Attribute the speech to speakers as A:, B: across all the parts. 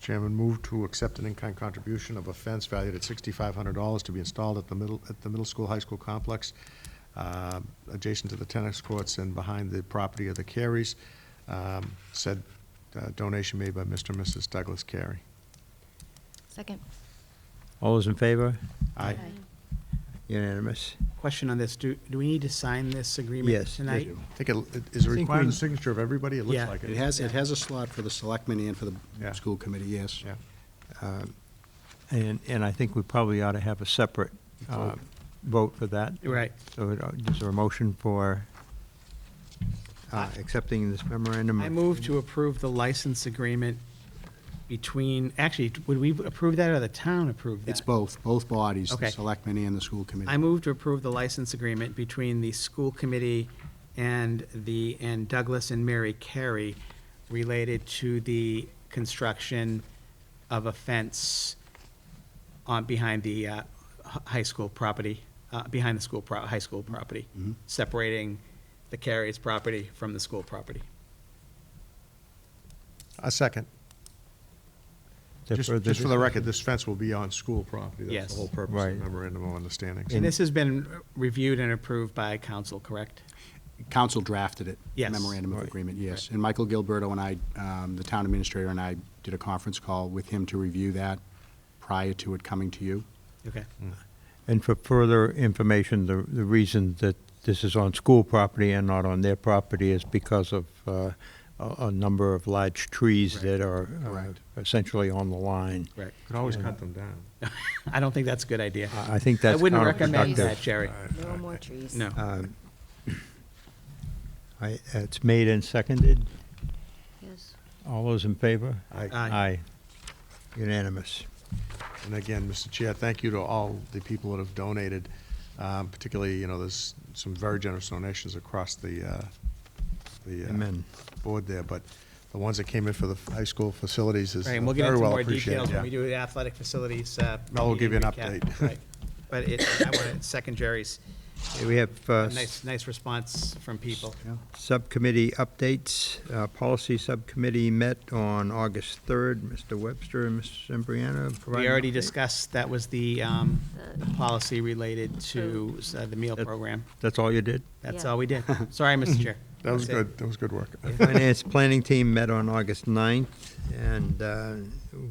A: Chairman, move to accept an in-kind contribution of a fence valued at sixty-five hundred dollars to be installed at the middle, at the middle school, high school complex, uh, adjacent to the tennis courts and behind the property of the Careys. Um, Said uh, donation made by Mr. and Mrs. Douglas Carey.
B: Second.
C: All those in favor?
A: Aye.
C: Unanimous?
D: Question on this, do, do we need to sign this agreement
C: Yes, they
D: tonight?
A: I think it- it, is it
C: I think
A: required
C: we-
A: the signature of everybody? It looks
D: Yeah,
A: like it.
E: It has, it has a slot for the selectmen and for
A: Yeah.
E: the school committee, yes.
A: Yeah.
E: Um,
C: And, and I think we probably ought to have a separate uh,
A: Vote.
C: vote for that.
D: Right.
C: So it- is there a motion for uh, accepting this memorandum?
D: I move to approve the license agreement between, actually, would we approve that or the town approve that?
E: It's both, both bodies, the
D: Okay.
E: selectmen and the school committee.
D: I move to approve the license agreement between the school committee and the, and Douglas and Mary Carey related to the construction of a fence on, behind the uh, hi- high school property, uh, behind the school, pro- high school property,
C: Mm-hmm.
E: Mhm.
D: separating the Carey's property from the school property.
A: A second.
C: Is there
A: Just,
C: further
A: just for the
C: discussion?
A: record, this fence will be on school property. That's
D: Yes.
A: the whole purpose
C: Right.
A: of the memorandum of understanding.
D: And this has been reviewed and approved by council, correct?
E: Council drafted it.
D: Yes.
E: Memorandum of
C: Right.
E: agreement, yes. And Michael Gilberto and I, um, the town administrator and I did a conference call with him to review that prior to it coming to you.
D: Okay.
C: Mm. And for further information, the, the reason that this is on school property and not on their property is because of uh, a, a number of large trees
D: Right.
C: that are uh,
E: Correct.
C: essentially on the line.
D: Correct.
A: Could always cut them down.
D: I don't think that's a good idea.
C: I I think
D: I
C: Uh, that's
D: wouldn't recommend
C: counterproductive.
D: that, Jerry.
B: No more trees.
D: No.
C: Um, I- It's made and seconded.
B: Yes.
C: All those in favor?
A: Aye.
D: Aye.
C: Unanimous.
A: And again, Mr. Chair, thank you to all the people that have donated, um, particularly, you know, there's some very generous donations across the, uh, the uh,
C: Amen.
A: board there, but the ones that came in for the high school facilities is
D: Right,
A: very
D: and we'll get into
A: well
D: more
A: appreciated.
D: details when
A: yeah.
D: we do the athletic facilities. uh,
A: Mel will give you an
D: meeting recap.
A: update.
D: Right. But it, I want to second Jerry's,
C: Okay, We have uh,
D: a nice, nice response from people.
C: subcommittee updates. Uh, Policy Subcommittee met on August 3rd. Mr. Webster and Mrs. Embriana provided.
D: We already discussed, that was the, um, the policy related to uh, the meal
C: That-
D: program.
C: That's all you did?
D: That's
B: Yeah.
D: all we did. Sorry, Mr. Chair.
A: That was
D: That's it.
A: good, that was good work.
C: Finance Planning Team met on August 9th, and uh,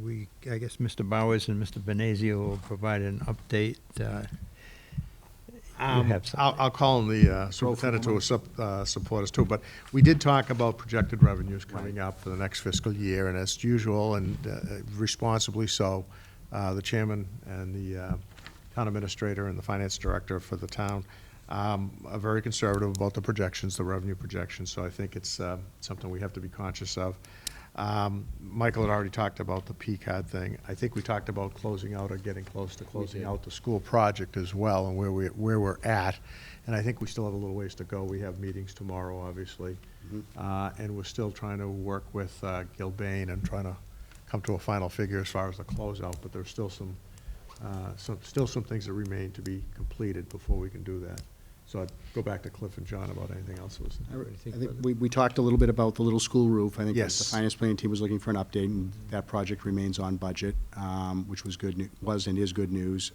C: we, I guess Mr. Bowers and Mr. Benazio will provide an update. uh,
D: Um,
C: have some-
A: I'll, I'll call on the uh, superintendent to sup- uh, support us too, but we did talk about projected revenues coming up for the next fiscal year, and as usual, and uh, responsibly so, uh, the chairman and the uh, town administrator and the finance director for the town um, are very conservative about the projections, the revenue projections, so I think it's uh, something we have to be conscious of. Um, Michael had already talked about the P-CAD thing. I think we talked about closing out or getting close to closing out the school project as well and where we, where we're at. And I think we still have a little ways to go. We have meetings tomorrow, obviously.
E: Mm-hmm.
A: Uh, and we're still trying to work with, uh, Gilbane and trying to come to a final figure as far as the closeout, but there's still some, uh, some, still some things that remain to be completed before we can do that. So I'd go back to Cliff and John about anything else that was.
E: I think we, we talked a little bit about the little school roof. I think
A: Yes.
E: the finance planning team was looking for an update, and that project remains on budget, um, which was good, nu- was and is good news.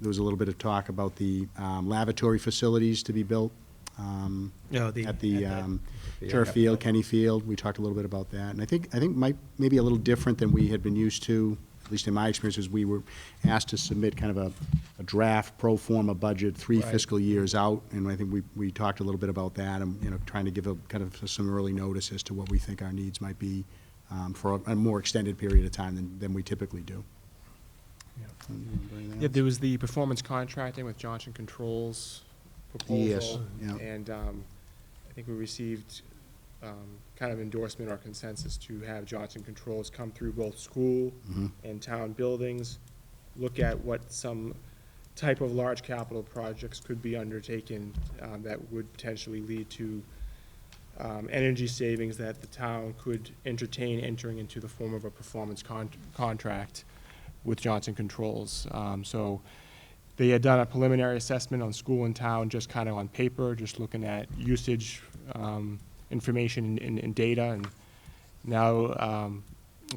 E: There was a little bit of talk about the um, lavatory facilities to be built um,
D: No, the-
E: at the
D: at the-
E: um, turf field, Kenny Field. We talked a little bit about that. And I think, I think might, maybe a little different than we had been used to, at least in my experience, is we were asked to submit kind of a, a draft pro forma budget, three
D: Right.
E: fiscal years out. And I think we, we talked a little bit about that and, you know, trying to give a kind of some early notice as to what we think our needs might be um, for a a more extended period of time than, than we typically do.
F: Yeah, there was the performance contracting with Johnson Controls proposal.
E: yeah.
F: And um, I think we received um, kind of endorsement or consensus to have Johnson Controls come through both school
E: Mhm.
F: and town buildings, look at what some type of large capital projects could be undertaken um, that would potentially lead to um, energy savings that the town could entertain entering into the form of a performance con- contract with Johnson Controls. Um, so they had done a preliminary assessment on school and town, just kind of on paper, just looking at usage, um, information and, and, and data. And now um,